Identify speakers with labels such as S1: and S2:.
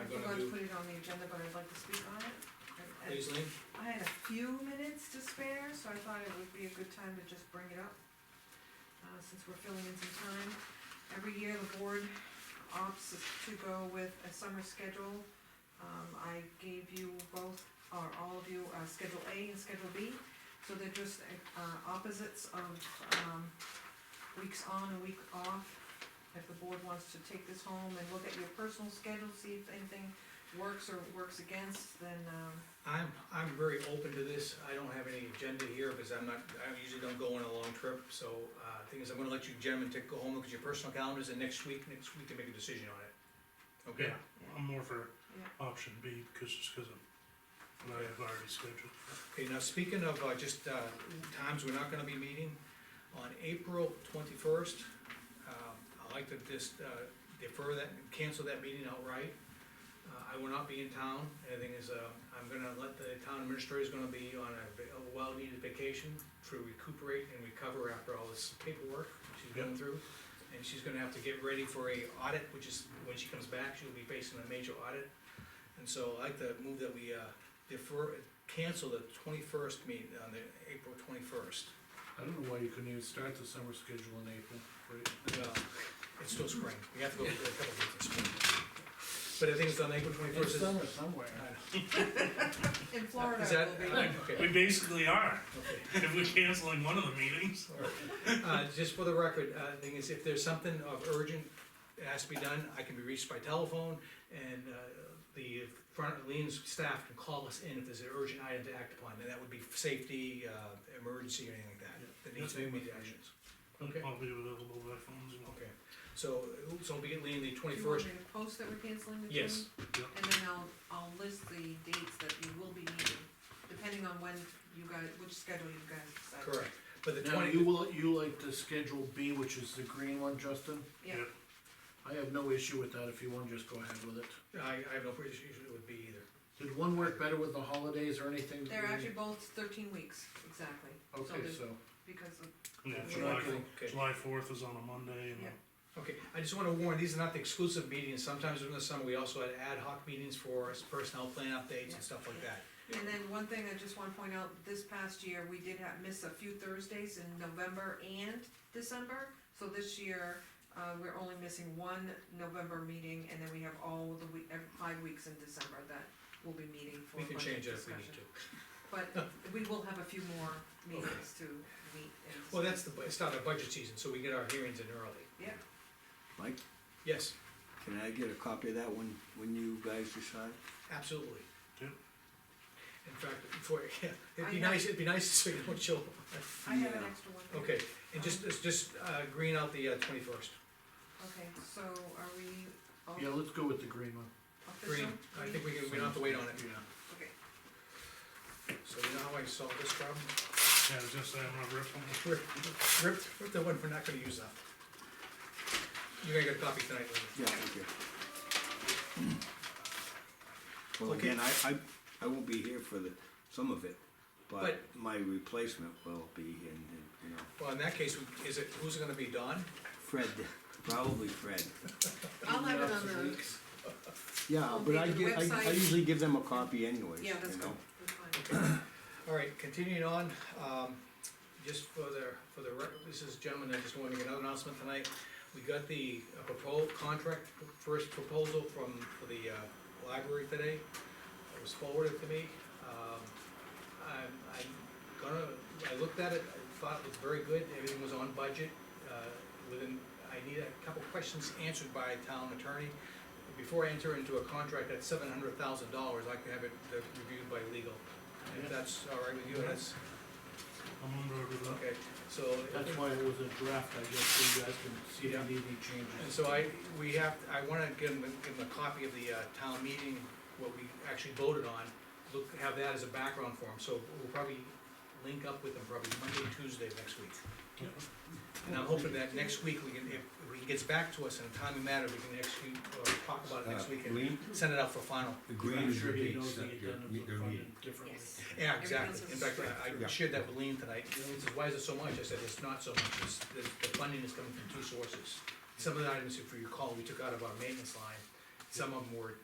S1: on the agenda, but I'd like to speak on it. I- I-
S2: Please, Lean.
S1: I had a few minutes to spare, so I thought it would be a good time to just bring it up, uh, since we're filling in some time. Every year, the board opts to go with a summer schedule. Um, I gave you both, or all of you, uh, Schedule A and Schedule B, so they're just, uh, opposites of, um, weeks on and week off. If the board wants to take this home and look at your personal schedule, see if anything works or works against, then, um,
S2: I'm, I'm very open to this, I don't have any agenda here, because I'm not, I usually don't go on a long trip, so, uh, thing is, I'm gonna let you gentlemen take, go home, look at your personal calendars, and next week, next week to make a decision on it. Okay?
S3: Yeah, I'm more for
S1: Yeah.
S3: option B, because, just because of what I have already scheduled.
S2: Okay, now, speaking of, uh, just, uh, times we're not gonna be meeting, on April twenty-first, um, I'd like to just, uh, defer that, cancel that meeting outright. Uh, I will not be in town, and the thing is, uh, I'm gonna let the town administrator's gonna be on a va- a well-needed vacation to recuperate and recover after all this paperwork she's going through. And she's gonna have to get ready for a audit, which is, when she comes back, she'll be facing a major audit. And so I'd like to move that we, uh, defer, cancel the twenty-first meet, on the April twenty-first.
S4: I don't know why you couldn't even start the summer schedule in April, right?
S2: Well, it's still spring, we have to go through a couple of weeks of spring. But I think it's on April twenty-first. Is
S4: somewhere.
S1: In Florida,
S2: that,
S1: it will be.
S3: We
S2: okay,
S3: basically are,
S2: okay.
S3: if we're canceling one of the meetings.
S2: Uh, just for the record, uh, thing is, if there's something of urgent that has to be done, I can be reached by telephone, and, uh, the front, Lean's staff can call us in if there's an urgent item to act upon, and that would be safety, uh, emergency, or anything like that, that needs to be immediate actions. Okay.
S3: I'll be available by phone as well.
S2: Okay, so, so we get Lean the
S1: Do you want
S2: twenty-first,
S1: me to post that we're canceling the meeting?
S2: yes,
S1: And then I'll, I'll list the dates that you will be meeting, depending on when you guys, which schedule you guys decide.
S2: correct, but the
S4: Now,
S2: twenty.
S4: you will, you like the schedule B, which is the green one, Justin?
S1: Yeah,
S3: Yeah.
S4: I have no issue with that, if you wanna just go ahead with it.
S2: I, I have no issue with B either.
S4: Did one work better with the holidays or anything?
S1: they're actually both thirteen weeks, exactly. So
S4: Okay,
S1: there's-
S4: so,
S1: Because of,
S3: Yeah,
S1: Yeah.
S3: July,
S4: Okay.
S3: July fourth is on a Monday, and
S1: Yeah.
S2: Okay, I just wanna warn, these are not the exclusive meetings, sometimes during the summer, we also had ad hoc meetings for personnel plan updates and stuff like that.
S1: and then one thing I just wanna point out, this past year, we did have, miss a few Thursdays in November and December. So this year, uh, we're only missing one November meeting, and then we have all the week, every five weeks in December that we'll be meeting for
S2: We can
S1: budget
S2: change that if we need
S1: discussion.
S2: to.
S1: But we will have a few more meetings to meet and.
S2: Well, that's the, it's not a budget season, so we get our hearings in early.
S1: Yeah,
S5: Mike,
S2: Yes,
S5: can I get a copy of that when, when you guys decide?
S2: absolutely.
S3: Yeah.
S2: In fact, before, yeah, it'd be
S1: I have-
S2: nice, it'd be nice so you don't chill.
S1: I have an
S5: Yeah.
S1: extra one. here.
S2: Okay, and just, it's just, uh, green out the twenty-first,
S1: Okay, so are we all
S4: yeah, let's go with the green one.
S2: green,
S1: official?
S2: I think we can, we don't have to wait on it,
S4: Yeah.
S1: Okay,
S2: so you know how I solved this problem?
S3: yeah, I was gonna say, I'm gonna rip them.
S2: Rip, rip, rip the one we're not gonna use up. You're gonna get a copy tonight, Lee.
S5: Yeah, thank you. Well,
S2: Okay.
S5: again, I, I, I won't be here for the, some of it, but
S2: But-
S5: my replacement will be in, in, you know,
S2: Well, in that case, we- is it, who's it gonna be, Don?
S5: Fred, probably Fred.
S1: I'll have it on the,
S4: Weeks.
S5: Yeah,
S1: Well,
S5: but I
S1: the
S5: give, I, I
S1: website-
S5: usually give them a copy anyways, you
S1: yeah, that's good,
S5: know?
S1: that's fine.
S2: All right, continuing on, um, just for the, for the, rec- this is, gentlemen, I just wanna make another announcement tonight. We got the proposal, contract, first proposal from, for the, uh, library today. It was forwarded to me. Um, I'm, I'm gonna, I looked at it, I thought it was very good, everything was on budget. Uh, Within, I need a couple questions answered by town attorney. Before I enter into a contract at seven hundred thousand dollars, I can have it uh, reviewed by legal. If that's all right with you, that's,
S3: I'm on board with that.
S2: okay, so.
S4: That's why it was a draft, I guess, so you guys can see if
S2: Yeah.
S4: you need
S2: And
S4: any changes.
S2: so I, we have, I wanna give them, give them a copy of the, uh, town meeting, what we actually voted on. Look, have that as a background for them, so we'll probably link up with them probably Monday, Tuesday of next week.
S3: Yeah.
S2: And I'm hoping that next week, we can, if, if he gets back to us in a timely manner, we can execute, or talk about it next
S6: Uh,
S2: week and
S6: Lean,
S2: send it out for final.
S6: the green
S4: I'm
S6: is your
S4: sure he
S6: dates
S4: knows the
S6: that you're,
S4: addendums
S6: you're
S4: are
S6: meeting.
S4: funded differently.
S1: Yes,
S2: Yeah, exactly, in
S1: Everything's
S2: fact, I, I
S6: Yeah.
S2: shared that with Lean tonight, he says, why is it so much, I said, it's not so much, it's, the, the funding is coming from two sources. Some of the items, if you recall, we took out of our maintenance line, some of them were